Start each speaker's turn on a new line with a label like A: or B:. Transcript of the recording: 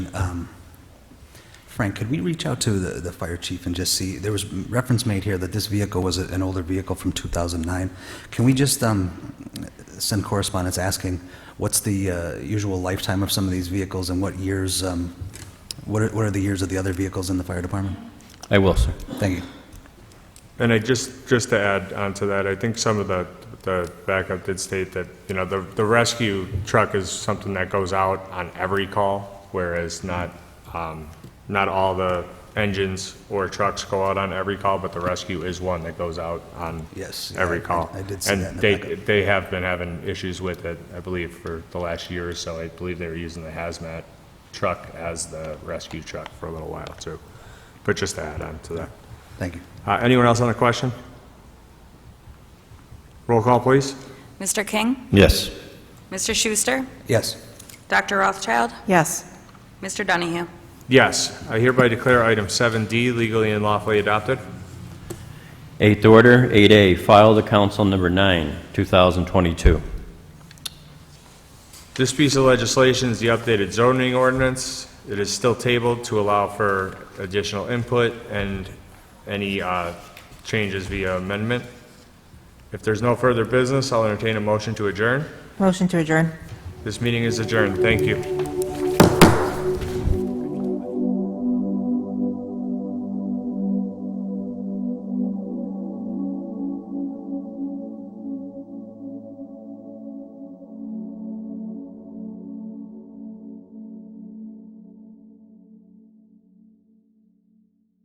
A: Um, Frank, could we reach out to the, the fire chief and just see, there was reference made here that this vehicle was a- an older vehicle from 2009. Can we just um, send correspondence asking what's the uh, usual lifetime of some of these vehicles and what years, um, what are, what are the years of the other vehicles in the fire department?
B: I will, sir.
A: Thank you.
C: And I just, just to add on to that, I think some of the, the backup did state that, you know, the, the rescue truck is something that goes out on every call, whereas not, um, not all the engines or trucks go out on every call, but the rescue is one that goes out on
A: Yes, yeah,
C: every
A: I-
C: call.
A: I did see that in
C: And
A: the
C: they,
A: backup.
C: they have been having issues with it, I believe, for the last year or so. I believe they were using the hazmat truck as the rescue truck for a little while, too. But just to add on to that.
A: Thank you.
C: Uh, Anyone else on the question? Roll call, please.
D: Mr. King?
B: Yes.
D: Mr. Schuster?
A: Yes.
D: Dr. Rothschild?
E: Yes.
D: Mr. Donahue?
C: Yes, I hereby declare item 7D legally and lawfully adopted.
B: Eighth order, 8A, file to council number 9, 2022.
C: This piece of legislation is the updated zoning ordinance. It is still tabled to allow for additional input and any uh, changes via amendment. If there's no further business, I'll entertain a motion to adjourn.
E: Motion to adjourn.
C: This meeting is adjourned. Thank you.